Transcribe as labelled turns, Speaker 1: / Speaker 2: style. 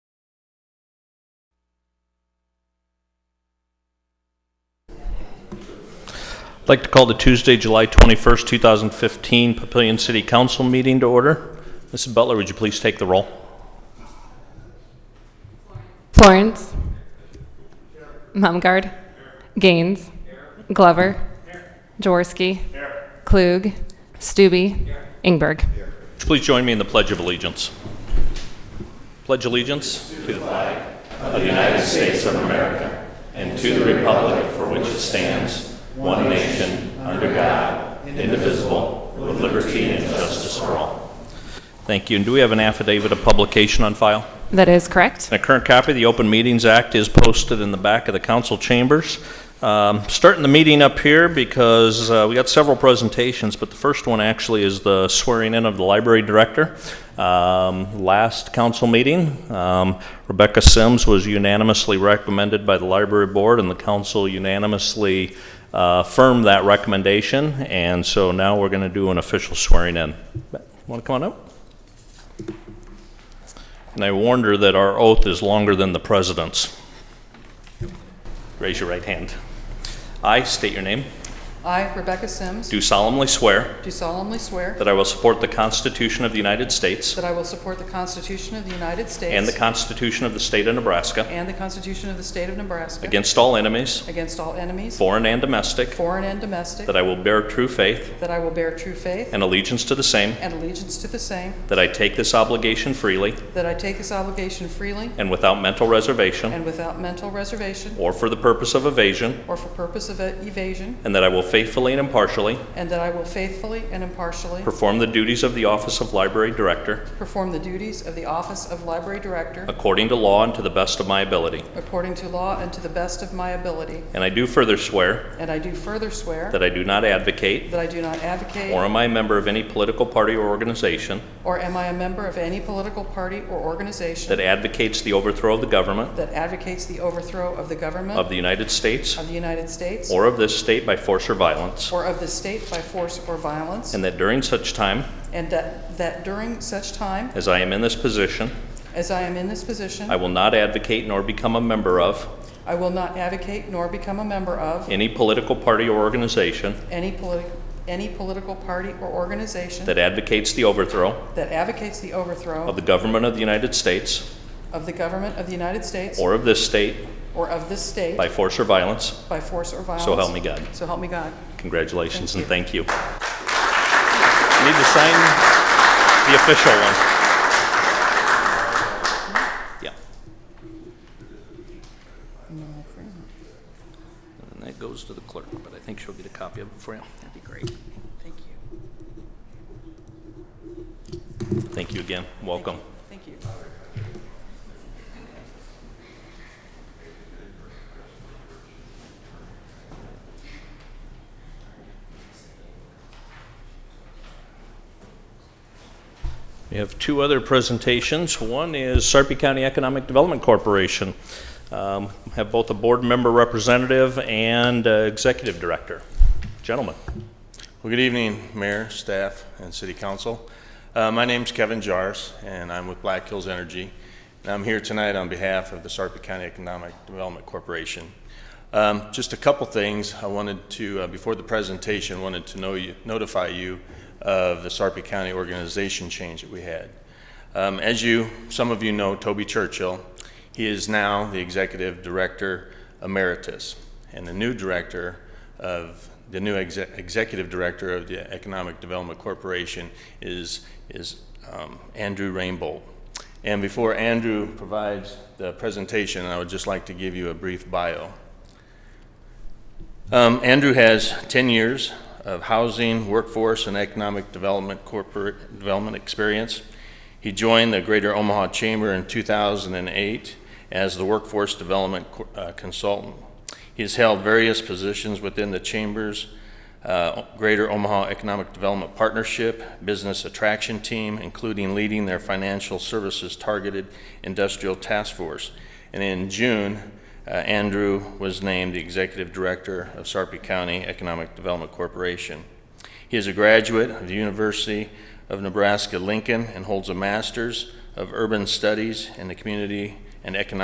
Speaker 1: like to call the Tuesday, July 21st, 2015 Papillion City Council meeting to order. Mrs. Butler, would you please take the roll?
Speaker 2: Florence. Mumgard. Gaines. Glover. Jaworski. Klug. Stube. Ingberg.
Speaker 1: Please join me in the Pledge of Allegiance. Pledge allegiance to the flag of the United States of America and to the republic for which it stands, one nation, under God, indivisible, with liberty and justice for all. Thank you. And do we have an affidavit of publication on file?
Speaker 2: That is correct.
Speaker 1: A current copy of the Open Meetings Act is posted in the back of the council chambers. Um, Starting the meeting up here because uh, we got several presentations, but the first one actually is the swearing in of the library director. Um, Last council meeting, um, Rebecca Sims was unanimously recommended by the library board, and the council unanimously uh, affirmed that recommendation, and so now we're going to do an official swearing in. Want to come on up? And I warned her that our oath is longer than the president's. Raise your right hand. I state your name.
Speaker 3: I, Rebecca Sims,
Speaker 1: Do solemnly swear
Speaker 3: do solemnly swear
Speaker 1: that I will support the Constitution of the United States
Speaker 3: that I will support the Constitution of the United States
Speaker 1: and the Constitution of the State of Nebraska
Speaker 3: and the Constitution of the State of Nebraska
Speaker 1: against all enemies,
Speaker 3: against all enemies,
Speaker 1: foreign and domestic,
Speaker 3: foreign and domestic,
Speaker 1: that I will bear true faith
Speaker 3: that I will bear true faith
Speaker 1: and allegiance to the same,
Speaker 3: and allegiance to the same,
Speaker 1: that I take this obligation freely
Speaker 3: that I take this obligation freely
Speaker 1: and without mental reservation
Speaker 3: and without mental reservation
Speaker 1: or for the purpose of evasion,
Speaker 3: or for purpose of e-, evasion,
Speaker 1: and that I will faithfully and impartially
Speaker 3: and that I will faithfully and impartially
Speaker 1: perform the duties of the office of Library Director
Speaker 3: perform the duties of the office of Library Director
Speaker 1: According to law and to the best of my ability.
Speaker 3: according to law and to the best of my ability.
Speaker 1: And I do further swear
Speaker 3: And I do further swear
Speaker 1: that I do not advocate
Speaker 3: that I do not advocate
Speaker 1: or am I a member of any political party or organization
Speaker 3: Or am I a member of any political party or organization
Speaker 1: that advocates the overthrow of the government
Speaker 3: that advocates the overthrow of the government
Speaker 1: of the United States
Speaker 3: of the United States
Speaker 1: or of this state by force or violence,
Speaker 3: or of the state by force or violence,
Speaker 1: and that during such time
Speaker 3: and that that during such time
Speaker 1: as I am in this position,
Speaker 3: as I am in this position,
Speaker 1: I will not advocate nor become a member of
Speaker 3: I will not advocate nor become a member of
Speaker 1: any political party or organization
Speaker 3: any political any political party or organization
Speaker 1: that advocates the overthrow
Speaker 3: that advocates the overthrow
Speaker 1: of the government of the United States
Speaker 3: of the government of the United States
Speaker 1: or of this state
Speaker 3: or of this state
Speaker 1: by force or violence.
Speaker 3: by force or violence.
Speaker 1: So help me God.
Speaker 3: So help me God.
Speaker 1: Congratulations and
Speaker 3: Thank
Speaker 1: thank you. Need to sign the official one. Yeah, and that goes to the clerk, but I think she'll get a copy of it for you.
Speaker 3: That'd be great. Thank you.
Speaker 1: Thank you again. Welcome.
Speaker 3: Thank you.
Speaker 1: We have two other presentations. One is Sarpy County Economic Development Corporation. Um, Have both a board member representative and uh, executive director. Gentlemen.
Speaker 4: Well, good evening, Mayor, staff, and City Council. Uh, My name's Kevin Jars, and I'm with Black Hills Energy. And I'm here tonight on behalf of the Sarpy County Economic Development Corporation. Um, Just a couple things I wanted to, uh, before the presentation, wanted to know you- notify you of the Sarpy County organization change that we had. Um, As you, some of you know Toby Churchill. He is now the Executive Director Emeritus and the new Director of, the new exe- Executive Director of the Economic Development Corporation is, is um, Andrew Rainbolt. And before Andrew provides the presentation, I would just like to give you a brief bio. Um, Andrew has 10 years of housing, workforce, and economic development corporate development experience. He joined the Greater Omaha Chamber in 2008 as the workforce development co- uh, consultant. He has held various positions within the chamber's uh, Greater Omaha Economic Development Partnership Business Attraction Team, including leading their financial services targeted industrial task force. And in June, uh, Andrew was named the Executive Director of Sarpy County Economic Development Corporation. He is a graduate of the University of Nebraska Lincoln and holds a Master's of Urban Studies in the Community and Economic